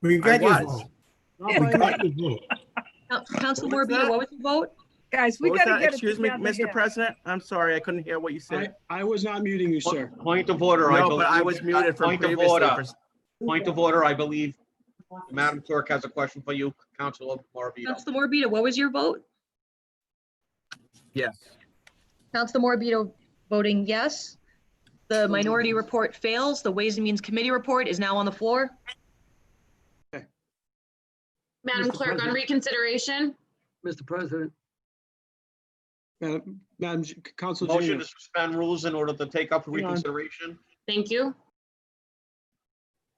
We got I your was. vote. Not We by much. got your vote. Coun- Council Morbido, What's that? what was your vote? Guys, we What was gotta that? get it Excuse me, together here. Mr. President, I'm sorry, I couldn't hear what you I, said. I was not muting you, sir. Point of order. No, but I believe- was muted from Point of previously. order, for- point of order, I believe. Madam Clerk has a question for you, Councilor Morbido. Council Morbido, what was your vote? Yes. Council Morbido voting yes. The minority report fails. The Ways and Means Committee report is now on the floor. Madam Clerk, Mr. on President. reconsideration, Mr. President, Madam, Uh, Madam J- Council Motion Janus. to suspend rules in order to take up for Hang on. reconsideration. thank you.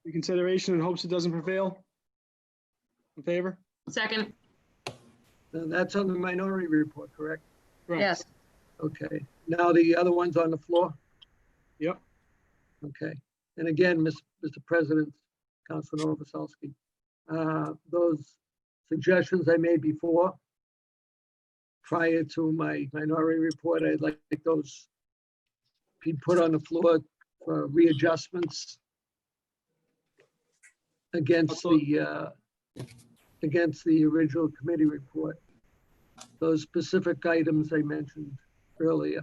reconsideration in hopes it doesn't prevail? In favor? Second, that's on the minority report, correct? Correct. Yes. Okay, now the other one's on the floor? Yep. Okay, and again, Ms- Mr. President, Councilor Novoselsky, uh, those suggestions I made before, prior to my minority report, I'd like those be put on the floor for readjustments against Also- the, uh, against the original committee report, those specific items I mentioned earlier.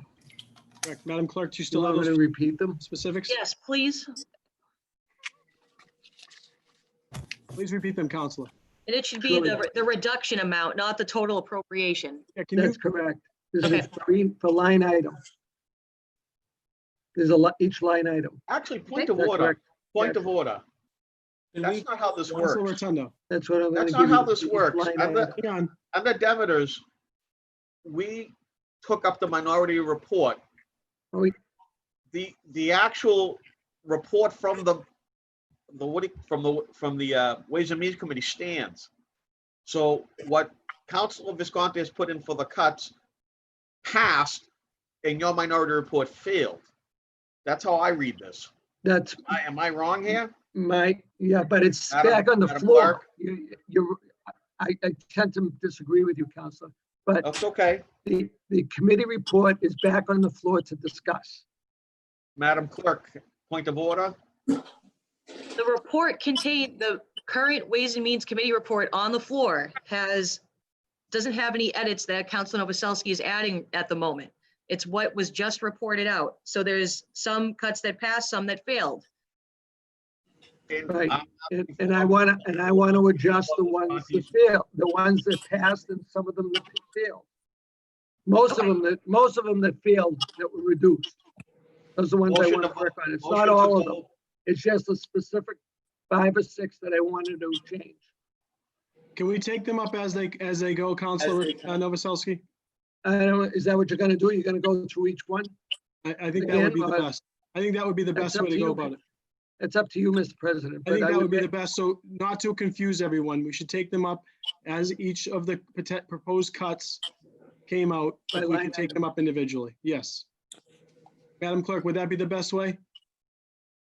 Correct. Madam Clerk, do you Still still have want me to those repeat them? specifics? Yes, please. Please repeat them, Counselor. And it should be Surely. the, the reduction amount, not the total appropriation. Yeah, can you, That's correct. This is Okay. three for line item. There's a lot, each line item. Actually, point Okay. of That's order, correct. point of order. Can That's we, not how this Counselor works. Rotundo, That's what I'm gonna That's give you. not how this each works. line I'm item. not- hang on. Under Demeter's, we took up the minority report. Oh, we- The, the actual report from the, the, what, do you- from the, from the uh, Ways and Means Committee stands. So what Councilor Visconti has put in for the cuts passed and your minority report failed. That's how I read this. That's I- Am I wrong here? my, yeah, but it's Madam- back on the Madam floor. Clerk? You, you, I, I tend to disagree with you, Counselor. That's okay. The, the committee report is back on the floor to discuss. Madam Clerk, point of order. The report contained, the current Ways and Means Committee report on the floor has, doesn't have any edits that Council Novoselsky is adding at the moment. It's what was just reported out. So there's some cuts that passed, some that failed. And uh, Right. I'm- And, and I wanna, and I wanna adjust the ones that fail, the ones that passed and some of them that failed. Most of them that, most of them that failed that were reduced. Those are the ones I Motion to wanna vote. work on. It's Motion not to all of vote. them. It's just a specific five or six that I wanted to change. Can we take them up as they, as they go, Counselor they uh, Novoselsky? I don't, is that what you're gonna do? You're gonna go through each one? I, I think that would be the Again, uh, best. I think that would be the that's best up way to to go you. about it. It's up to you, Mr. President. I but think that would be make- the best. So not to confuse everyone, we should take them up as each of the pote- proposed cuts came out. By If we line can take them up individually, yes. Madam Clerk, would that be the best way?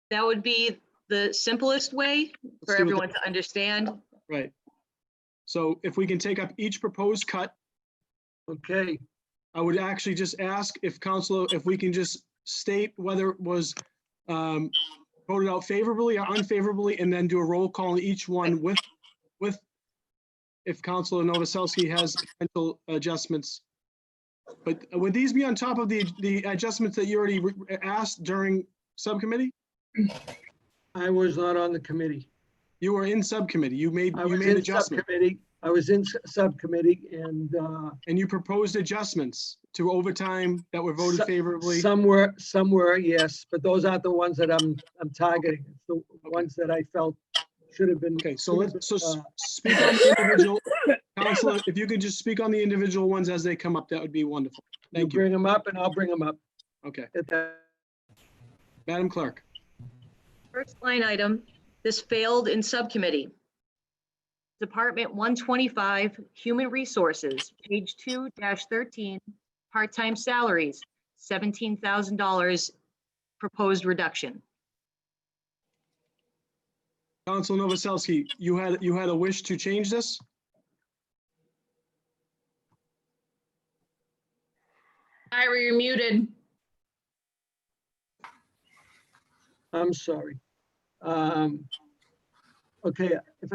That would be the simplest way for Let's do it everyone to understand. that- Right. So if we can take up each proposed cut, Okay, I would actually just ask if council, if we can just state whether it was um, voted out favorably or unfavorably, and then do a roll call on each one with, with, if Counselor Novoselsky has potential adjustments. But would these be on top of the, the adjustments that you already re- asked during subcommittee? I was not on the committee. You were in subcommittee, you made, I you was made in adjustments, subcommittee. I was in s- subcommittee and, uh, and you proposed adjustments to overtime that were voted Su- favorably. Some were, some were, yes, but those aren't the ones that I'm, I'm targeting. It's the ones that I felt should have been. Okay, so let's, so s- Uh, speak on the individual, Counselor, if you could just speak on the individual ones as they come up, that would be wonderful. You Thank you. bring them up and I'll bring them up Okay, at that. Madam Clerk, First line item, this failed in subcommittee. Department 125, Human Resources, page 2-13, part-time salaries, $17,000 proposed reduction. Counsel Novoselsky, you had, you had a wish to change this? Ira, you're muted. I'm sorry. Um, Okay, if